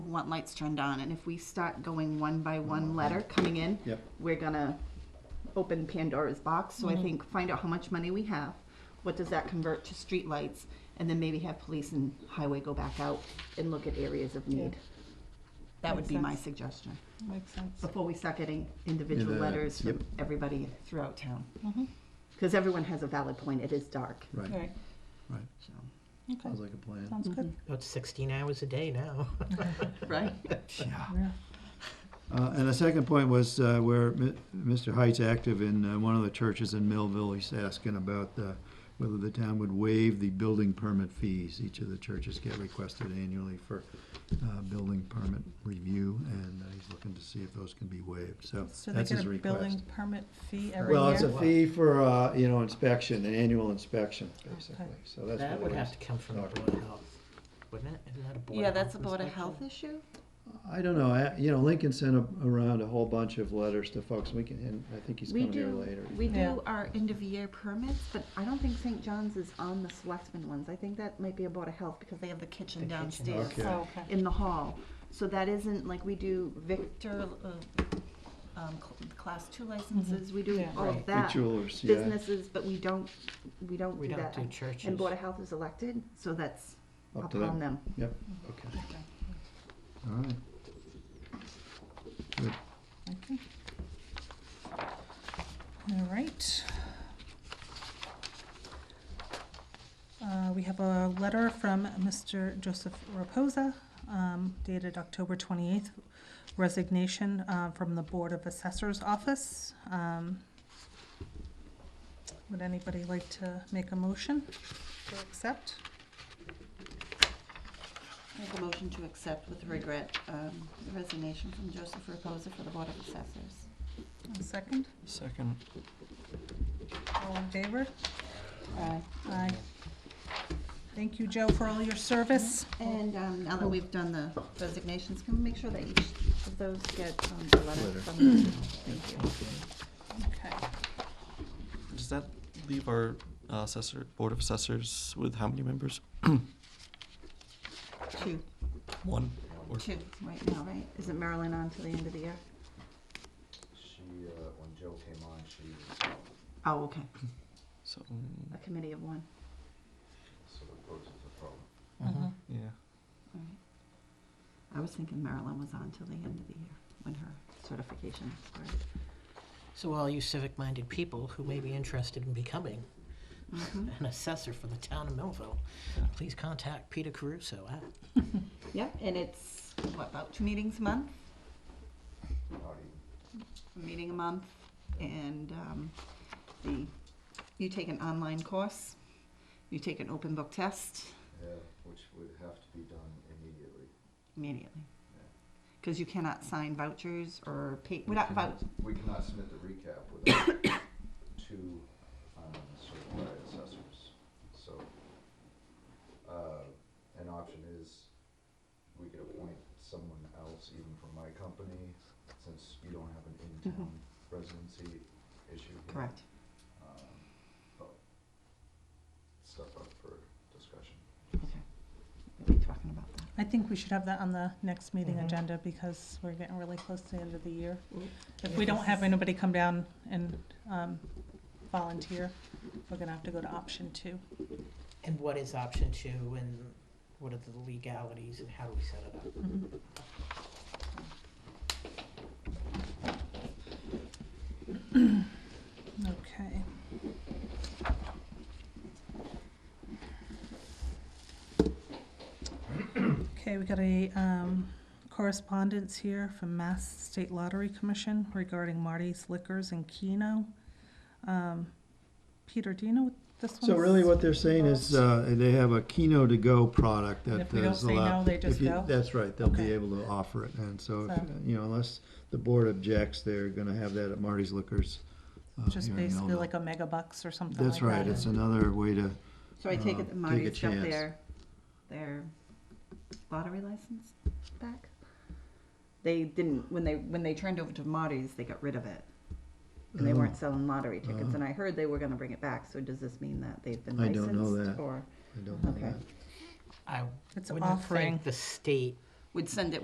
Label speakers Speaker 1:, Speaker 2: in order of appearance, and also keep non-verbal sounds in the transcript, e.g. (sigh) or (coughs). Speaker 1: want lights turned on, and if we start going one by one letter coming in,
Speaker 2: Yep.
Speaker 1: we're gonna open Pandora's box, so I think find out how much money we have, what does that convert to street lights, and then maybe have police and highway go back out and look at areas of need. That would
Speaker 3: Makes
Speaker 1: be my
Speaker 3: sense.
Speaker 1: suggestion,
Speaker 3: Makes sense.
Speaker 1: before we start getting individual
Speaker 2: Yeah,
Speaker 1: letters from
Speaker 2: yep.
Speaker 1: everybody throughout town.
Speaker 3: Mhm.
Speaker 1: Because everyone has a valid point, it is dark,
Speaker 2: Right,
Speaker 3: Right,
Speaker 1: so.
Speaker 3: okay,
Speaker 2: sounds like a plan.
Speaker 3: sounds good.
Speaker 4: About 16 Oh, hours a day now. (laughs)
Speaker 1: Right.
Speaker 2: Yeah.
Speaker 3: Yeah.
Speaker 2: Uh, And the second point was uh, where Mi- Mr. Height's active in uh, one of the churches in Millville. He's asking about uh, whether the town would waive the building permit fees. Each of the churches get requested annually for uh, building permit review, and uh, he's looking to see if those can be waived. So
Speaker 3: So they
Speaker 2: that's
Speaker 3: get
Speaker 2: his
Speaker 3: a
Speaker 2: request.
Speaker 3: building permit fee every year?
Speaker 2: Well, it's a fee for, uh, you know, inspection, an annual inspection, basically. So that's
Speaker 4: That
Speaker 2: what
Speaker 4: would
Speaker 2: it
Speaker 4: have
Speaker 2: is.
Speaker 4: to come from the
Speaker 2: Okay.
Speaker 4: Board of Health, wouldn't it? Isn't that a
Speaker 1: (laughs)
Speaker 4: Board
Speaker 1: Yeah,
Speaker 4: of
Speaker 1: that's a
Speaker 4: Health
Speaker 1: Board of
Speaker 4: inspection?
Speaker 1: Health issue?
Speaker 2: I don't know. I, you know, Lincoln sent a- around a whole bunch of letters to folks. We can, and I think he's
Speaker 1: We
Speaker 2: coming here
Speaker 1: do,
Speaker 2: later.
Speaker 1: we
Speaker 3: Yeah.
Speaker 1: do our end of year permits, but I don't think St. John's is on the selectmen ones. I think that might be a Board of Health because they have the kitchen
Speaker 4: The kitchen.
Speaker 1: downstairs
Speaker 2: Okay.
Speaker 3: Oh, okay.
Speaker 1: in the hall. So that isn't like we do Victor, uh, um, cl- class two
Speaker 4: Mm-hmm.
Speaker 1: licenses, we do
Speaker 3: Yeah.
Speaker 1: all of
Speaker 4: Right.
Speaker 1: that.
Speaker 2: Rituals, Oh, yeah.
Speaker 1: Businesses, but we don't, we don't
Speaker 4: We
Speaker 1: do
Speaker 4: don't
Speaker 1: that.
Speaker 4: do churches.
Speaker 1: And Board of Health is elected, so that's
Speaker 2: Up to
Speaker 1: upon them.
Speaker 2: Yep, okay. All right. Good.
Speaker 3: Okay. All right. Uh, We have a letter from Mr. Joseph Raposa um, dated October 28th, resignation uh, from the Board of Assessors Office. Um, Would anybody like to make a motion to accept?
Speaker 1: Make a motion to accept with regret, um, the resignation from Joseph Reposa for the Board of Assessors.
Speaker 3: A second?
Speaker 5: Second.
Speaker 3: All in favor?
Speaker 1: Aye.
Speaker 3: Aye. Thank you, Joe, for all your service.
Speaker 1: And um, now that we've done the resignations, can we make sure that each of those get um, a letter
Speaker 2: Letter.
Speaker 1: from the Thank you.
Speaker 3: Okay.
Speaker 5: Does that leave our uh, assessor, board of assessors with how many members?
Speaker 1: Two,
Speaker 5: One or
Speaker 1: two right now, right? Isn't Marilyn on till the end of the year?
Speaker 6: She, uh, when Joe came on, she,
Speaker 1: Oh, okay.
Speaker 5: so? mm,
Speaker 1: A committee of one.
Speaker 6: sort of poses a problem.
Speaker 5: Yeah.
Speaker 1: All right. I was thinking Marilyn was on till the end of the year when her certification expired.
Speaker 4: So all you civic-minded people who may be interested in becoming
Speaker 1: Mhm.
Speaker 4: an assessor for the town of Millville, please contact Peter Caruso at
Speaker 1: Yep, and it's, what, about two meetings a month?
Speaker 6: Not even
Speaker 1: a meeting a month, and um, the, you take an online course, you take an open book test
Speaker 6: Yeah, which would have to be done immediately.
Speaker 1: immediately. Because you cannot sign vouchers or pay, without vouch,
Speaker 6: We cannot submit the recap without (coughs) two um, certified assessors. So, uh, an option is we could appoint someone else, even from my company, since you don't have an in-town residency issue here.
Speaker 1: correct.
Speaker 6: Um, But, stuff up for discussion.
Speaker 1: Okay. We'll be talking about that.
Speaker 3: I think we should have that on the next meeting
Speaker 4: Mhm.
Speaker 3: agenda because we're getting really close to the end of the year. If we don't have anybody come down and um, volunteer, we're gonna have to go to option two.
Speaker 4: And what is option two and what are the legalities and how do we set it up?
Speaker 3: Okay. Okay, we got a um, correspondence here from Mass State Lottery Commission regarding Marty's Liquors in Keno. Um, Peter, do you know what this one's?
Speaker 2: So really what they're saying is, uh, they have a Keno to go product
Speaker 3: And
Speaker 2: that
Speaker 3: if we don't
Speaker 2: is
Speaker 3: say no,
Speaker 2: allowed.
Speaker 3: they just
Speaker 2: If you-
Speaker 3: go?
Speaker 2: That's right, they'll be
Speaker 3: Okay.
Speaker 2: able to offer it, and so, if,
Speaker 3: So-
Speaker 2: you know, unless the board objects, they're gonna have that at Marty's Liquors. uh,
Speaker 3: Just
Speaker 2: here in
Speaker 3: basically
Speaker 2: Millville.
Speaker 3: like a mega bucks or something like
Speaker 2: That's
Speaker 3: that.
Speaker 2: right, it's another way to,
Speaker 1: So I take
Speaker 2: Um,
Speaker 1: it
Speaker 2: take
Speaker 1: that
Speaker 2: a
Speaker 1: Marty's got
Speaker 2: chance.
Speaker 1: their, their lottery license back? They didn't, when they, when they turned over to Marty's, they got rid of it. And they
Speaker 2: Oh.
Speaker 1: weren't selling lottery tickets,
Speaker 2: Uh-huh.
Speaker 1: and I heard they were gonna bring it back, so does this mean that they've been
Speaker 2: I don't know
Speaker 1: licensed
Speaker 2: that.
Speaker 1: or
Speaker 2: I don't know
Speaker 1: Okay.
Speaker 2: that.
Speaker 4: I
Speaker 3: It's
Speaker 4: wouldn't
Speaker 3: offering.
Speaker 4: think the state
Speaker 1: would send it